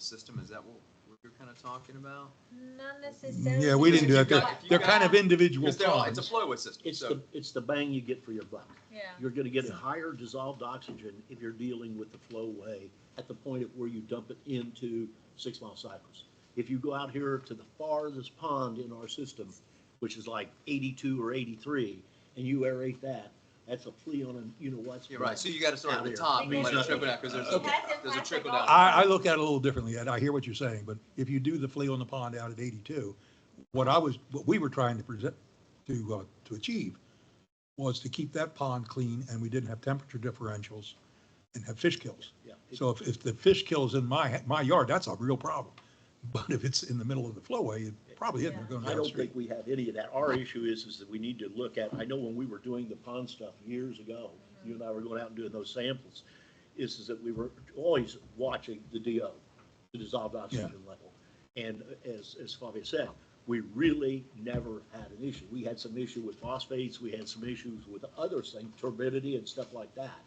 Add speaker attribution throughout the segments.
Speaker 1: system, is that what we were kind of talking about?
Speaker 2: Not necessarily.
Speaker 3: Yeah, we didn't do that.
Speaker 1: Because if you
Speaker 3: They're,
Speaker 1: got- if you
Speaker 3: they're kind
Speaker 1: got-
Speaker 3: of individual
Speaker 1: Because they're all, it's a
Speaker 3: ponds.
Speaker 1: flowwood system,
Speaker 4: It's
Speaker 1: so,
Speaker 4: the, it's the bang you get for your buck.
Speaker 2: Yeah,
Speaker 4: You're gonna get higher dissolved oxygen if you're dealing with the flowway at the point at where you dump it into six mile cycles. If you go out here to the farthest pond in our system, which is like eighty-two or eighty-three, and you aerate that, that's a flea on a, you know what's.
Speaker 1: yeah, right, so you gotta start at
Speaker 4: Out
Speaker 1: the
Speaker 4: here.
Speaker 1: top and
Speaker 2: Means
Speaker 1: let it
Speaker 4: nothing.
Speaker 1: trickle down, because there's
Speaker 2: It
Speaker 1: a,
Speaker 2: has
Speaker 1: there's a
Speaker 2: impacted
Speaker 1: trickle
Speaker 2: all-
Speaker 1: down.
Speaker 3: I, I look at it a little differently, and I hear what you're saying, but if you do the flea on the pond out at eighty-two, what I was, what we were trying to present, to, uh, to achieve was to keep that pond clean and we didn't have temperature differentials and have fish kills.
Speaker 4: Yeah.
Speaker 3: So if, if the fish kills in my, my yard, that's a real problem. But if it's in the middle of the flowway, it probably isn't We're going
Speaker 4: I don't
Speaker 3: downstream.
Speaker 4: think we have any of that. Our issue is, is that we need to look at, I know when we were doing the pond stuff years ago, you and I were going out and doing those samples, is, is that we were always watching the DO, the dissolved oxygen level. And as, as Fabio said, we really never had an issue. We had some issue with phosphates, we had some issues with other things, turbidity and stuff like that.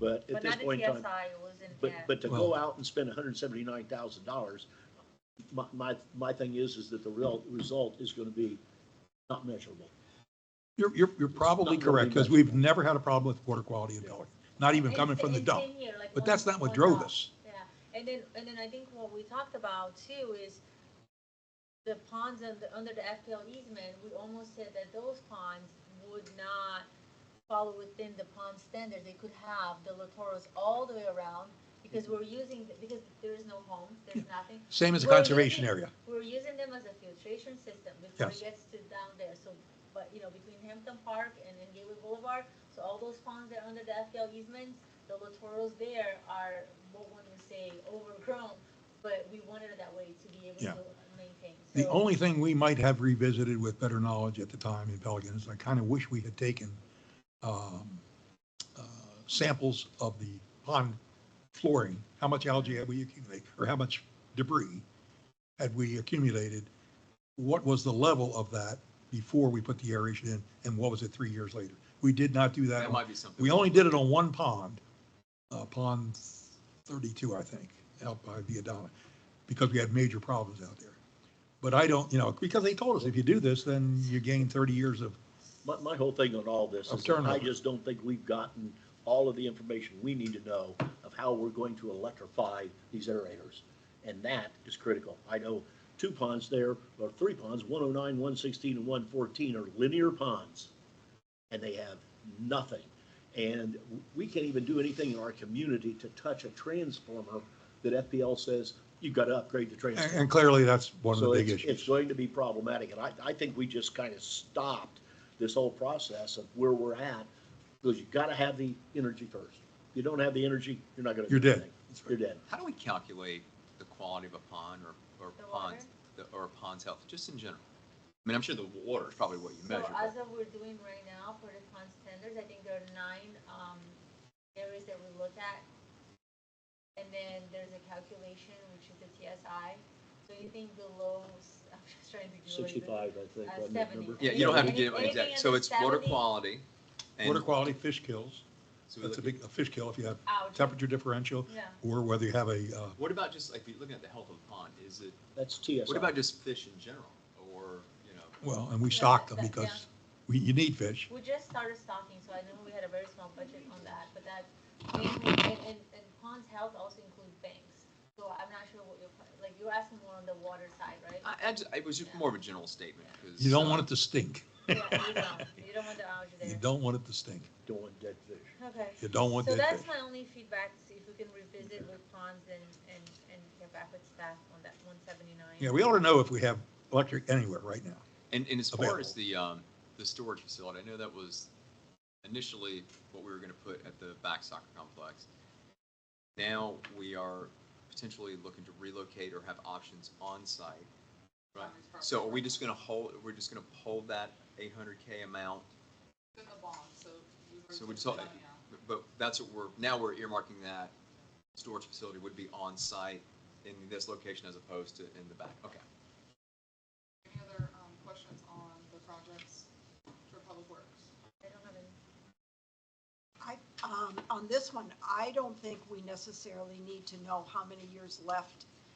Speaker 4: But at
Speaker 2: but
Speaker 4: this
Speaker 2: not the
Speaker 4: point in time.
Speaker 2: TSI, it wasn't
Speaker 4: But,
Speaker 2: that.
Speaker 4: but to
Speaker 3: Well-
Speaker 4: go out and spend hundred and seventy-nine thousand dollars, my, my, my thing is, is that the real result is gonna be not measurable.
Speaker 3: You're, you're, you're probably
Speaker 4: Not really
Speaker 3: correct, because
Speaker 4: much.
Speaker 3: we've never had a problem with water quality in Pelican, not even
Speaker 2: And
Speaker 3: coming
Speaker 2: it's-
Speaker 3: from the
Speaker 2: it's
Speaker 3: dump.
Speaker 2: in here, like
Speaker 3: But
Speaker 2: one-
Speaker 3: that's not what
Speaker 2: one
Speaker 3: drove
Speaker 2: dot.
Speaker 3: us.
Speaker 2: Yeah, and then, and then I think what we talked about too is the ponds under, under the FPL easement, we almost said that those ponds would not follow within the pond standards. They could have the littorals all the way around because we're using, because there is no homes, there's nothing.
Speaker 3: Same as a
Speaker 2: We're
Speaker 3: conservation
Speaker 2: using-
Speaker 3: area.
Speaker 2: We're using them as a filtration system before it
Speaker 3: Yes.
Speaker 2: gets to down there, so, but, you know, between Hampton Park and then Gateway Boulevard, so all those ponds that are under the FPL easements, the littorals there are, what one would say, overgrown, but we wanted it that way to be able
Speaker 3: Yeah.
Speaker 2: to maintain, so.
Speaker 3: The only thing we might have revisited with better knowledge at the time in Pelican is I kind of wish we had taken um, uh, samples of the pond flooring, how much algae had we accumulated, or how much debris had we accumulated? What was the level of that before we put the aeration in, and what was it three years later? We did not do that.
Speaker 1: That
Speaker 3: on-
Speaker 1: might be something.
Speaker 3: We only did it on one pond, uh, pond thirty-two, I think, out by Viadana, because we had major problems out there. But I don't, you know, because they told us if you do this, then you gain thirty years of,
Speaker 4: My, my whole thing on all this
Speaker 3: Of
Speaker 4: is that I
Speaker 3: turnover.
Speaker 4: just don't think we've gotten all of the information we need to know of how we're going to electrify these aerators. And that is critical. I know two ponds there, or three ponds, one oh nine, one sixteen, and one fourteen are linear ponds. And they have nothing. And we can't even do anything in our community to touch a transformer that FPL says, you've got to upgrade the transformer.
Speaker 3: and and clearly that's one of the
Speaker 4: So
Speaker 3: big
Speaker 4: it's, it's
Speaker 3: issues.
Speaker 4: going to be problematic, and I, I think we just kind of stopped this whole process of where we're at, because you gotta have the energy first. If You don't have the energy, you're not gonna. do
Speaker 3: You're dead.
Speaker 4: anything. You're dead.
Speaker 1: How do we calculate the quality of a pond or, or
Speaker 2: The
Speaker 1: ponds, the- or a pond's health, just in general? I mean, I'm sure the water is probably what you
Speaker 2: So
Speaker 1: measure,
Speaker 2: as
Speaker 1: but
Speaker 2: of we're doing right now for the pond standards, I think there are nine, um, areas that we look at. And then there's a calculation, which is the TSI, so anything below, s- I'm just trying to do. it.
Speaker 4: Sixty-five, I think,
Speaker 2: Uh,
Speaker 4: wasn't that
Speaker 2: 70.
Speaker 4: number?
Speaker 1: yeah, you don't have to
Speaker 2: Any-
Speaker 1: give an
Speaker 2: anything
Speaker 1: exact, so
Speaker 2: under
Speaker 1: it's water
Speaker 2: 70?
Speaker 1: quality. and-
Speaker 3: Water quality, fish kills,
Speaker 1: so we
Speaker 3: that's a
Speaker 1: look at-
Speaker 3: big, a fish kill if you have
Speaker 2: Out.
Speaker 3: temperature differential,
Speaker 2: Yeah.
Speaker 3: or whether you have a, uh,
Speaker 1: What about just, like, if you're looking at the health of the pond, is it,
Speaker 4: That's TSI.
Speaker 1: what about just fish in general, or, you know?
Speaker 3: well, and we
Speaker 2: Yeah,
Speaker 3: stock them
Speaker 2: that-
Speaker 3: because we, you need fish.
Speaker 2: We just started stocking, so I know we had a very small budget on that, but that, and, and, and Pond's Health also includes banks. So I'm not sure what you're, like, you're asking more on the water side, right?
Speaker 1: I, I ju- it was just more of a general statement, because.
Speaker 3: You don't want it to stink.
Speaker 2: Yeah, you don't, you don't want the algae
Speaker 3: You
Speaker 2: there.
Speaker 3: don't want it to stink.
Speaker 4: Doing dead fish.
Speaker 2: Okay.
Speaker 3: You don't want
Speaker 2: So
Speaker 3: that fish.
Speaker 2: that's my only feedback, see if we can revisit with Ponds and, and, and get back with staff on that one seventy-nine.
Speaker 3: Yeah, we ought to know if we have electric anywhere right now.
Speaker 1: And, and as far as
Speaker 3: Available.
Speaker 1: the, um, the storage facility, I know that was initially what we were gonna put at the back soccer complex. Now we are potentially looking to relocate or have options on site. Right, so are we just gonna hold, we're just gonna hold that eight hundred K amount?
Speaker 5: in the bond, so.
Speaker 1: So we just, hold- but that's what we're, now we're earmarking that storage facility would be on site in this location as opposed to in the back, okay.
Speaker 5: Any other, um, questions on the projects for Public Works?
Speaker 2: I don't have any.
Speaker 6: I, um, on this one, I don't think we necessarily need to know how many years left